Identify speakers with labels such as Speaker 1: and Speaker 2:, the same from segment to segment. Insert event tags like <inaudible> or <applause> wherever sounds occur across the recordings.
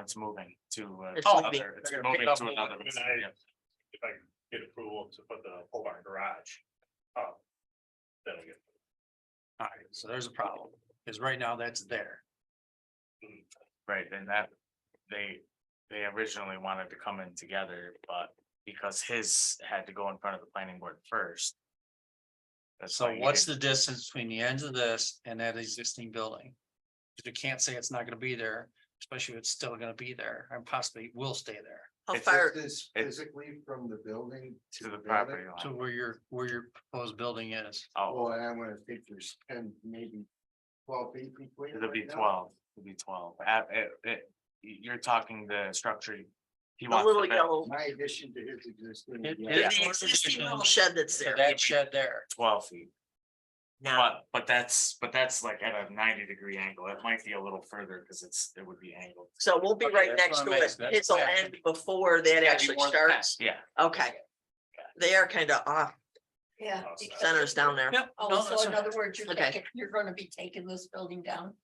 Speaker 1: it's moving to uh,
Speaker 2: It's moving.
Speaker 1: another, it's
Speaker 2: They're
Speaker 1: moving
Speaker 2: pick up
Speaker 1: to another.
Speaker 3: one,
Speaker 1: facility.
Speaker 3: and if I can get approval to put the whole barn garage. up, That'll get.
Speaker 2: All right, so there's a problem, because right now that's there.
Speaker 1: Right, and that, they, they originally wanted to come in together, but because his had to go in front of the planning board first. that's why
Speaker 2: So
Speaker 1: he
Speaker 2: what's
Speaker 1: didn't-
Speaker 2: the distance between the ends of this and that existing building? 'Cause You can't say it's not gonna be there, especially if it's still gonna be there and possibly will stay there
Speaker 4: How
Speaker 1: It's
Speaker 4: far,
Speaker 5: This
Speaker 1: it-
Speaker 5: physically from the building to the
Speaker 1: property
Speaker 5: building.
Speaker 2: to
Speaker 1: line.
Speaker 2: where your, where your proposed building is.
Speaker 1: Oh,
Speaker 5: Well, and I wanna think there's ten, maybe twelve feet between.
Speaker 1: it'll
Speaker 5: right
Speaker 1: be
Speaker 5: now.
Speaker 1: twelve, it'll be twelve. At- it- it- y- you're talking the structure. He
Speaker 4: the
Speaker 1: wants.
Speaker 4: little
Speaker 1: the
Speaker 4: yellow,
Speaker 5: My addition to his existing.
Speaker 2: It-
Speaker 5: yeah.
Speaker 2: it-
Speaker 4: the
Speaker 2: Yeah.
Speaker 4: existing little shed that's
Speaker 2: So
Speaker 4: there.
Speaker 2: That shed there.
Speaker 1: Twelve feet,
Speaker 4: Now,
Speaker 1: but, but that's, but that's like at a ninety degree angle. It might be a little further because it's, it would be angled.
Speaker 4: so we'll be
Speaker 2: Okay,
Speaker 4: right
Speaker 2: that's
Speaker 4: next
Speaker 2: what
Speaker 4: to
Speaker 2: I'm
Speaker 4: it.
Speaker 2: asking. That's
Speaker 4: It'll
Speaker 2: back.
Speaker 4: end before that actually starts.
Speaker 1: Yeah,
Speaker 4: Okay. They are kind of off
Speaker 6: Yeah.
Speaker 2: Oh,
Speaker 3: Awesome.
Speaker 6: because-
Speaker 4: centers down there.
Speaker 2: Yep.
Speaker 6: Oh, so in other words, you're,
Speaker 4: Okay.
Speaker 6: taking- you're gonna be taking this building down?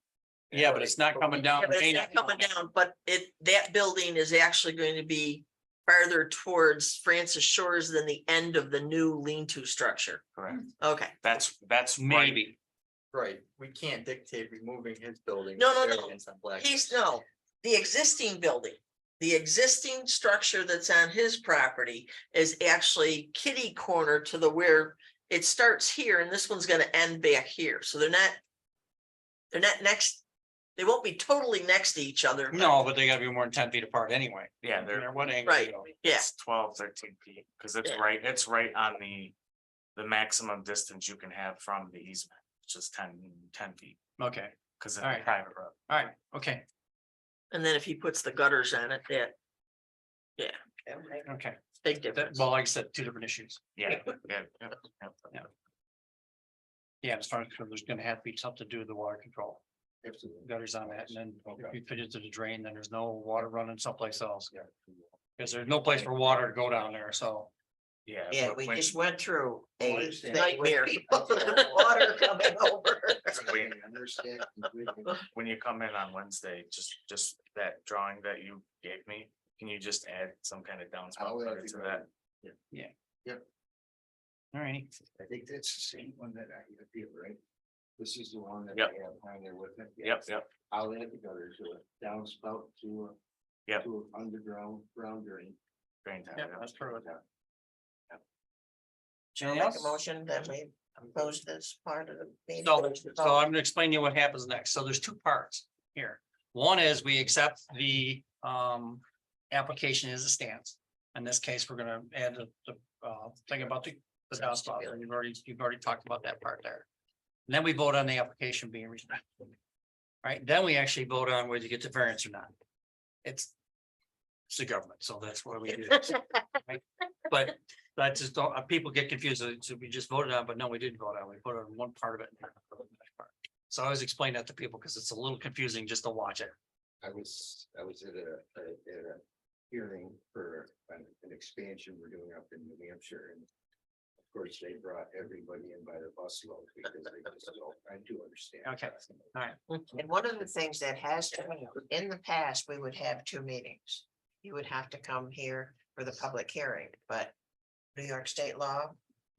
Speaker 2: Yeah, but it's not coming down.
Speaker 4: Yeah, but it's
Speaker 2: Main-
Speaker 4: not coming down, but it, that building is actually going to be farther towards Francis Shores than the end of the new lean-to structure.
Speaker 1: correct.
Speaker 4: Okay,
Speaker 1: That's, that's. right-
Speaker 2: Maybe.
Speaker 7: Right, we can't dictate removing his building.
Speaker 4: No, no,
Speaker 7: their
Speaker 4: no.
Speaker 7: hands on Black
Speaker 4: he's, no, the existing building, the existing structure that's on his property is actually kitty corner to the where it starts here and this one's gonna end back here, so they're not, they're not next, they won't be totally next to each other. but-
Speaker 2: No, but they gotta be more than ten feet apart anyway.
Speaker 1: Yeah,
Speaker 2: No
Speaker 1: they're,
Speaker 2: matter what angle.
Speaker 4: Right.
Speaker 2: you go.
Speaker 4: Yeah,
Speaker 1: It's twelve, thirteen feet, because it's
Speaker 4: Yeah.
Speaker 1: right, it's right on the, the maximum distance you can have from the easement, which is 10 10 feet,
Speaker 2: Okay,
Speaker 1: because it's a
Speaker 2: Alright.
Speaker 1: private road.
Speaker 2: all right, okay,
Speaker 4: and then if he puts the gutters on it, that
Speaker 2: okay. That,
Speaker 4: big difference.
Speaker 2: well, like I said, two different issues.
Speaker 1: Yeah, yeah, yeah, yeah.
Speaker 2: Yeah, as far as there's gonna have to be something to do with the water control.
Speaker 5: Absolutely.
Speaker 2: gutters on it, and then
Speaker 5: Okay.
Speaker 2: if you fit it to the drain, then there's no water running someplace else.
Speaker 1: <laughs>
Speaker 2: Cause there's no place for water to go down there, so.
Speaker 1: Yeah.
Speaker 8: Yeah,
Speaker 1: but
Speaker 8: we
Speaker 1: when-
Speaker 8: just went through a
Speaker 5: Understand.
Speaker 8: thing
Speaker 4: Nightmare.
Speaker 8: with people and water coming over.
Speaker 5: I understand
Speaker 1: <laughs>
Speaker 5: completely.
Speaker 1: When you come in on Wednesday, just, just that drawing that you gave me, can you just add some kind of
Speaker 5: I'll
Speaker 1: downspout
Speaker 5: let
Speaker 1: cover
Speaker 5: you
Speaker 1: to
Speaker 5: know.
Speaker 1: that?
Speaker 2: All right,
Speaker 5: I think that's the same one that I have here, right? This is the one that I
Speaker 1: Yep.
Speaker 5: have on there with it.
Speaker 1: Yep, yep,
Speaker 5: I'll add the gutter to it, downspout to a.
Speaker 1: Yep.
Speaker 5: To an underground ground drain.
Speaker 1: drain tile,
Speaker 2: yeah,
Speaker 1: yeah.
Speaker 2: that's true.
Speaker 8: I'll
Speaker 2: Anything
Speaker 8: make a
Speaker 2: else?
Speaker 8: motion that we oppose this part of the meeting.
Speaker 2: So, so I'm gonna explain to you what happens next. So there's two parts here. One is we accept the um application as it stands. In this case, we're gonna add the the uh thing about the the downspout, and you've already, you've already talked about that part there. And Then we vote on the application being rejected. Right, then we actually vote on whether you get the variance or not. It's. It's the government, so that's why we
Speaker 6: <laughs>
Speaker 2: do. this, right? But that just don't, uh, people get confused, uh, so we just voted on, but no, we didn't vote on, we voted on one part of it. and not the other part. So I always explain that to people because it's a little confusing just to watch it.
Speaker 5: I was, I was at a, at a- at a hearing for an, an expansion we're doing up in New Hampshire and. Of course, they brought everybody in by the busload because they just don't, I do understand.
Speaker 2: Okay.
Speaker 5: that.
Speaker 8: And one of the things that has, to in the past, we would have two meetings. You would have to come here for the public hearing, but New York state law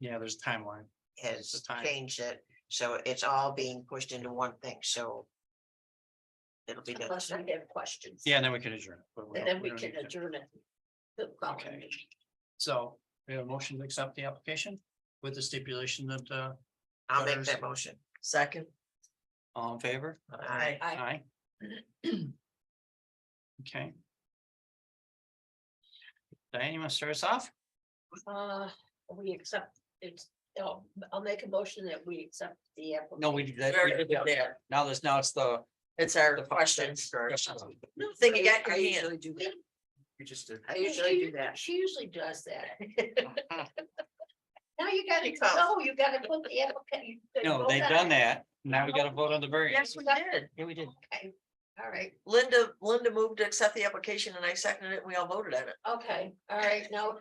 Speaker 2: Yeah, there's a timeline. The
Speaker 8: has
Speaker 2: time.
Speaker 8: changed it. So it's all being pushed into one thing, so it'll be done.
Speaker 6: Unless we have questions.
Speaker 2: Yeah, and then we can adjourn. it, but
Speaker 6: And
Speaker 2: don't-
Speaker 6: then we
Speaker 2: don't
Speaker 6: can
Speaker 2: need to.
Speaker 6: adjourn it. to the following
Speaker 2: Okay.
Speaker 6: meeting.
Speaker 2: So we have a motion to accept the application with the stipulation that uh
Speaker 8: I'll make that motion.
Speaker 4: Second,
Speaker 2: all in favor?
Speaker 8: Aye.
Speaker 6: Aye.
Speaker 2: Aye. Okay. Diane, you want to start us off?
Speaker 6: Uh, we accept, it's, oh, I'll make a motion that we accept the. application.
Speaker 2: No, we did that.
Speaker 4: Very
Speaker 2: we did
Speaker 4: good.
Speaker 2: that. Now there's, now it's the.
Speaker 4: it's our
Speaker 2: the
Speaker 4: questions.
Speaker 2: questions.
Speaker 4: Thing you got your
Speaker 8: I
Speaker 4: hand.
Speaker 8: usually do that.
Speaker 7: We just did.
Speaker 6: She-
Speaker 8: I usually do that.
Speaker 6: She usually does
Speaker 8: <laughs>
Speaker 6: that. Now you gotta, no, you gotta put the application.
Speaker 2: No, they've done that. Now we gotta vote on the variance.
Speaker 4: Yes, we did.
Speaker 2: Yeah, we did.
Speaker 6: Okay, all right,
Speaker 4: Linda, Linda moved to accept the application and I seconded it. and We all voted on it.
Speaker 6: okay, all right, now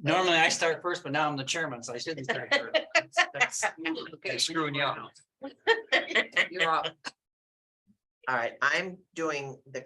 Speaker 2: Normally I start first, but now I'm the chairman, so I shouldn't start first. That's-
Speaker 8: Okay.
Speaker 2: that's Screwing you up.
Speaker 8: You're up. All right, I'm doing the